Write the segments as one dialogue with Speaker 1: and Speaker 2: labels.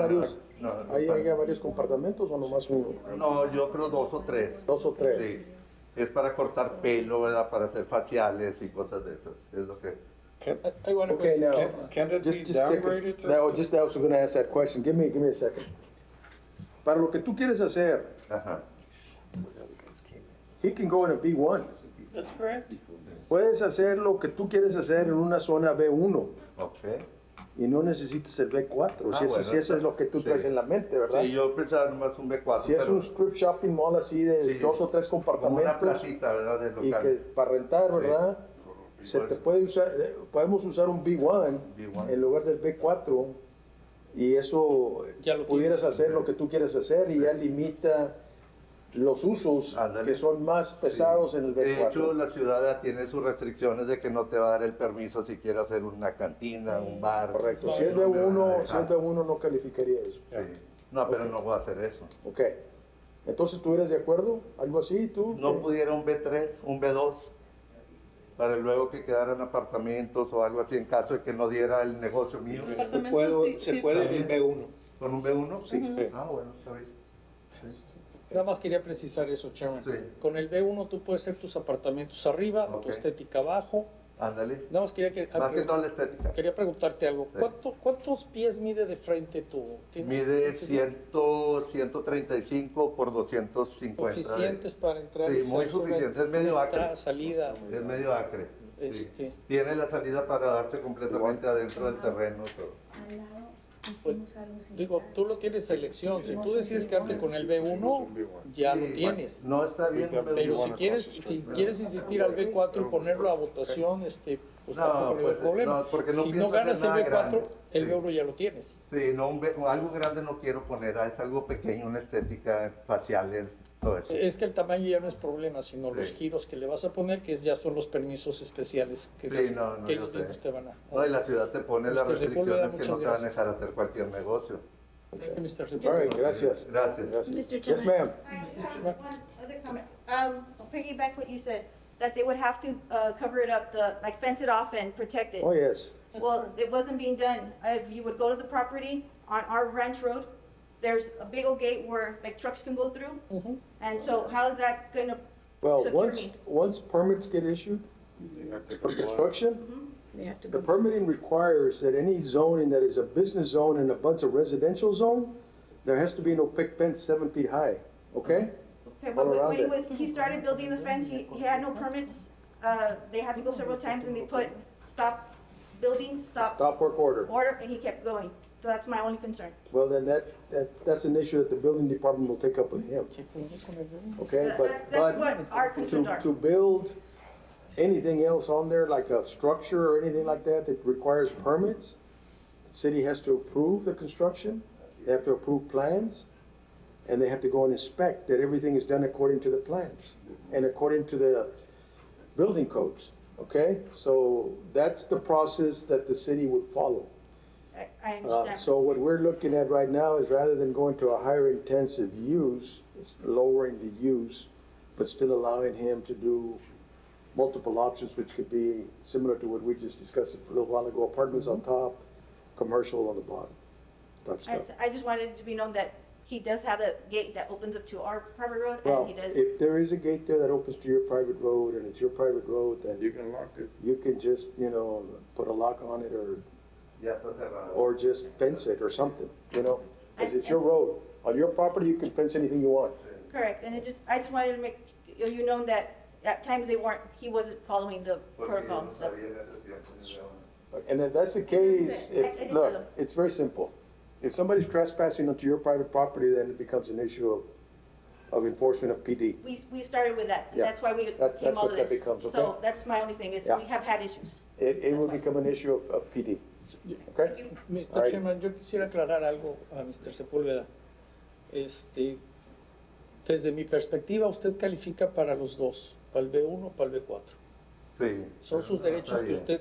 Speaker 1: varios,
Speaker 2: No, no,
Speaker 1: ahí
Speaker 2: no.
Speaker 1: hay varios compartimentos o nomás uno,
Speaker 2: No, yo creo dos o tres.
Speaker 1: dos o tres.
Speaker 2: Sí. Es para cortar pelo, ¿verdad? Para hacer faciales y cosas de esas. Es lo que.
Speaker 3: Can, I want to
Speaker 1: Okay, now,
Speaker 3: Can, can it
Speaker 1: just,
Speaker 3: be
Speaker 1: just take
Speaker 3: downgraded
Speaker 1: it.
Speaker 3: to?
Speaker 1: Now, just I was gonna ask that question. Give me, give me a second. Para lo que tú quieres hacer,
Speaker 2: Ajá.
Speaker 1: he can go in a B1.
Speaker 3: That's correct.
Speaker 1: Puedes hacer lo que tú quieres hacer en una zona B1
Speaker 2: Ok.
Speaker 1: y no necesitas el B4.
Speaker 2: Ah,
Speaker 1: si, eso,
Speaker 2: bueno,
Speaker 1: si eso es lo que tú
Speaker 2: sí.
Speaker 1: traes en la mente, ¿verdad?
Speaker 2: Sí, yo pensaba nomás un B4.
Speaker 1: si es
Speaker 2: pero
Speaker 1: un strip shopping mall así de
Speaker 2: Sí.
Speaker 1: dos o tres
Speaker 2: como una
Speaker 1: compartimentos
Speaker 2: placita, ¿verdad? De
Speaker 1: y
Speaker 2: local.
Speaker 1: que para rentar, ¿verdad? Se te puede usar, eh, podemos usar un B1,
Speaker 2: B1.
Speaker 1: en lugar del B4 y eso eh,
Speaker 3: Ya lo
Speaker 1: pudieras hacer lo que tú quieres hacer y ya limita los usos
Speaker 2: Ándale.
Speaker 1: que son más pesados en el
Speaker 2: De hecho,
Speaker 1: B4.
Speaker 2: la ciudad tiene sus restricciones de que no te va a dar el permiso si quieres hacer una cantina, un bar.
Speaker 1: Correcto. Si
Speaker 3: Sí,
Speaker 1: es
Speaker 2: un
Speaker 1: B1,
Speaker 2: restaurante.
Speaker 1: si es B1 no calificaría eso.
Speaker 2: Sí. No, pero no voy a hacer eso.
Speaker 1: Ok. Entonces, ¿tú eres de acuerdo? ¿Algo así? ¿Tú?
Speaker 2: No
Speaker 1: ¿Qué?
Speaker 2: pudiera un B3, un B2, para luego que quedaran apartamentos o algo así en caso de que no diera el negocio mío.
Speaker 4: Departamento
Speaker 5: Puedo-
Speaker 4: sí-
Speaker 5: se
Speaker 4: sí,
Speaker 5: puede en el B1.
Speaker 2: ¿Con un B1?
Speaker 5: Sí.
Speaker 2: Ah, bueno, está bien.
Speaker 6: Nada más quería precisar eso, Chairman.
Speaker 2: Sí.
Speaker 6: Con el B1 tú puedes hacer tus apartamentos arriba,
Speaker 2: Ok.
Speaker 6: tu estética abajo.
Speaker 2: Ándale.
Speaker 6: Nada más quería, que, ah,
Speaker 2: Más que toda la estética.
Speaker 6: quería preguntarte algo.
Speaker 2: Sí.
Speaker 6: ¿Cuánto- ¿Cuántos pies mide de frente tu? tienes-
Speaker 2: Mide
Speaker 6: tienes
Speaker 2: 100, 135 por 250. de-
Speaker 6: Suficientes para entrar.
Speaker 2: Sí,
Speaker 6: y
Speaker 2: muy
Speaker 6: salir sobre
Speaker 2: suficiente, es medio
Speaker 6: la
Speaker 2: acre.
Speaker 6: entrada, salida.
Speaker 2: Es medio acre. sí.
Speaker 6: Este.
Speaker 2: Tiene la salida para darse completamente adentro del terreno. y todo.
Speaker 4: Al lado hicimos algo similar.
Speaker 6: Digo, tú lo tienes a elección. Si tú decides quedarte con el B1, ya
Speaker 2: Sí,
Speaker 6: lo tienes.
Speaker 2: No está bien.
Speaker 3: Pero
Speaker 6: Pero
Speaker 3: Bueno,
Speaker 6: si
Speaker 3: no,
Speaker 6: quieres,
Speaker 3: sí,
Speaker 6: si quieres insistir al B4 y ponerlo a votación, este, pues
Speaker 2: No,
Speaker 6: tampoco hay
Speaker 2: pues,
Speaker 6: problema.
Speaker 2: no, porque no
Speaker 6: si
Speaker 2: pienso
Speaker 6: no
Speaker 2: hacer
Speaker 6: ganas el
Speaker 2: nada
Speaker 6: B4,
Speaker 2: grande.
Speaker 6: el
Speaker 2: Sí.
Speaker 6: B1 ya lo tienes.
Speaker 2: Sí, no, un be- algo grande no quiero poner, ah, es algo pequeño, una estética facial, todo eso.
Speaker 6: Es que el tamaño ya no es problema, sino los
Speaker 2: Sí.
Speaker 6: giros que le vas a poner, que ya son los permisos especiales que,
Speaker 2: Sí,
Speaker 6: ellos-
Speaker 2: no, no,
Speaker 6: que
Speaker 2: yo
Speaker 6: ellos
Speaker 2: sé.
Speaker 6: mismos te van a
Speaker 2: No, y la ciudad te pone las
Speaker 6: Mr. Sepúlveda,
Speaker 2: restricciones que no
Speaker 6: muchas
Speaker 2: te van a
Speaker 6: gracias.
Speaker 2: dejar hacer cualquier negocio.
Speaker 6: Thank you, Mr.
Speaker 1: All
Speaker 6: Secretary.
Speaker 1: right, gracias.
Speaker 2: Gracias.
Speaker 4: Mr.
Speaker 1: Yes,
Speaker 4: Chairman.
Speaker 1: ma'am.
Speaker 7: I have one other comment. Um, I'll piggyback what you said, that they would have to, uh, cover it up, the, like fence it off and protect it.
Speaker 1: Oh, yes.
Speaker 7: Well, it wasn't being done. If you would go to the property on our ranch road, there's a big old gate where like trucks can go through.
Speaker 1: Mm-hmm.
Speaker 7: And so how is that gonna?
Speaker 1: Well,
Speaker 7: secure
Speaker 1: once,
Speaker 7: me?
Speaker 1: once permits get issued for construction,
Speaker 4: They have to
Speaker 1: The
Speaker 4: go-
Speaker 1: permitting requires that any zoning that is a business zone and abuts a residential zone, there has to be no pick fence seven feet high, okay?
Speaker 7: Okay,
Speaker 1: All
Speaker 7: but when-
Speaker 1: around
Speaker 7: when he
Speaker 1: it.
Speaker 7: was, he started building the fence, he, he had no permits. Uh, they had to go several times and they put stop building, stop
Speaker 1: Stop work order.
Speaker 7: order, and he kept going. So that's my only concern.
Speaker 1: Well, then that, that's, that's an issue that the building department will take up with him, okay?
Speaker 7: That-
Speaker 1: But,
Speaker 7: That's, that's
Speaker 1: but
Speaker 7: what our concerns
Speaker 1: to,
Speaker 7: are.
Speaker 1: to build anything else on there, like a structure or anything like that, that requires permits, the city has to approve the construction, they have to approve plans, and they have to go and inspect that everything is done according to the plans and according to the building codes, okay? So that's the process that the city would follow.
Speaker 7: I, I
Speaker 1: Uh,
Speaker 7: understand.
Speaker 1: So what we're looking at right now is rather than going to a higher intensive use, it's lowering the use, but still allowing him to do multiple options, which could be similar to what we just discussed a little while ago, apartments on top, commercial on the bottom, type
Speaker 7: Mm-hmm. I,
Speaker 1: stuff.
Speaker 7: I just wanted it to be known that he does have a gate that opens up to our private road, and
Speaker 1: Well,
Speaker 7: he does.
Speaker 1: if there is a gate there that opens to your private road and it's your private road, then
Speaker 5: You can lock it.
Speaker 1: you can just, you know, put a lock on it or,
Speaker 2: Ya está cerrado.
Speaker 1: or just fence it or something, you know? Because
Speaker 7: And-
Speaker 1: it's your road. On your property, you can fence anything you want.
Speaker 7: Correct, and it just, I just wanted to make you you know that at times they weren't, he wasn't following the
Speaker 2: Porque yo
Speaker 7: protocol,
Speaker 2: no
Speaker 7: so.
Speaker 2: sabía en ese tiempo, ni de dónde.
Speaker 1: And if that's the case,
Speaker 7: I- I
Speaker 1: if,
Speaker 7: didn't know.
Speaker 1: look, it's very simple. If somebody's trespassing onto your private property, then it becomes an issue of, of enforcement of PD.
Speaker 7: We, we started with that, and
Speaker 1: Yeah.
Speaker 7: that's why we
Speaker 1: That-
Speaker 7: came
Speaker 1: that's
Speaker 7: all
Speaker 1: what
Speaker 7: of
Speaker 1: that
Speaker 7: this.
Speaker 1: becomes,
Speaker 7: So
Speaker 1: okay?
Speaker 7: that's my only thing, is
Speaker 1: Yeah.
Speaker 7: we have had issues.
Speaker 1: It, it will become an issue of, of PD, okay?
Speaker 6: Mr.
Speaker 1: Alright.
Speaker 6: Chairman, yo quisiera aclarar algo a Mr. Sepúlveda. Este, desde mi perspectiva, usted califica para los dos, para el B1, para el B4.
Speaker 2: Sí.
Speaker 6: Son sus
Speaker 2: Pero
Speaker 6: derechos
Speaker 2: está
Speaker 6: que
Speaker 2: bien.
Speaker 6: usted,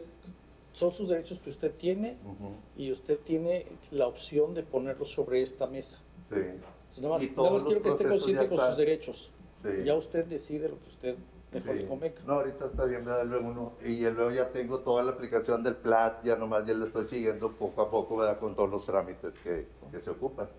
Speaker 6: son sus derechos que usted tiene
Speaker 2: Ujú,
Speaker 6: y usted tiene la opción de ponerlos sobre esta mesa.
Speaker 2: Sí,
Speaker 6: Entonces, nada
Speaker 2: Y
Speaker 6: más,
Speaker 2: todos
Speaker 6: nada
Speaker 2: los
Speaker 6: más quiero que esté
Speaker 2: procesos ya
Speaker 6: consciente con
Speaker 2: están.
Speaker 6: sus derechos.
Speaker 2: sí.
Speaker 6: Ya usted decide lo que usted mejor
Speaker 2: Sí.
Speaker 6: le convenga.
Speaker 2: No, ahorita está bien, ¿verdad? Luego uno, y ya luego ya tengo toda la aplicación del PLAT, ya nomás ya le estoy siguiendo poco a poco, ¿verdad? Con todos los trámites que, que que se ocupan.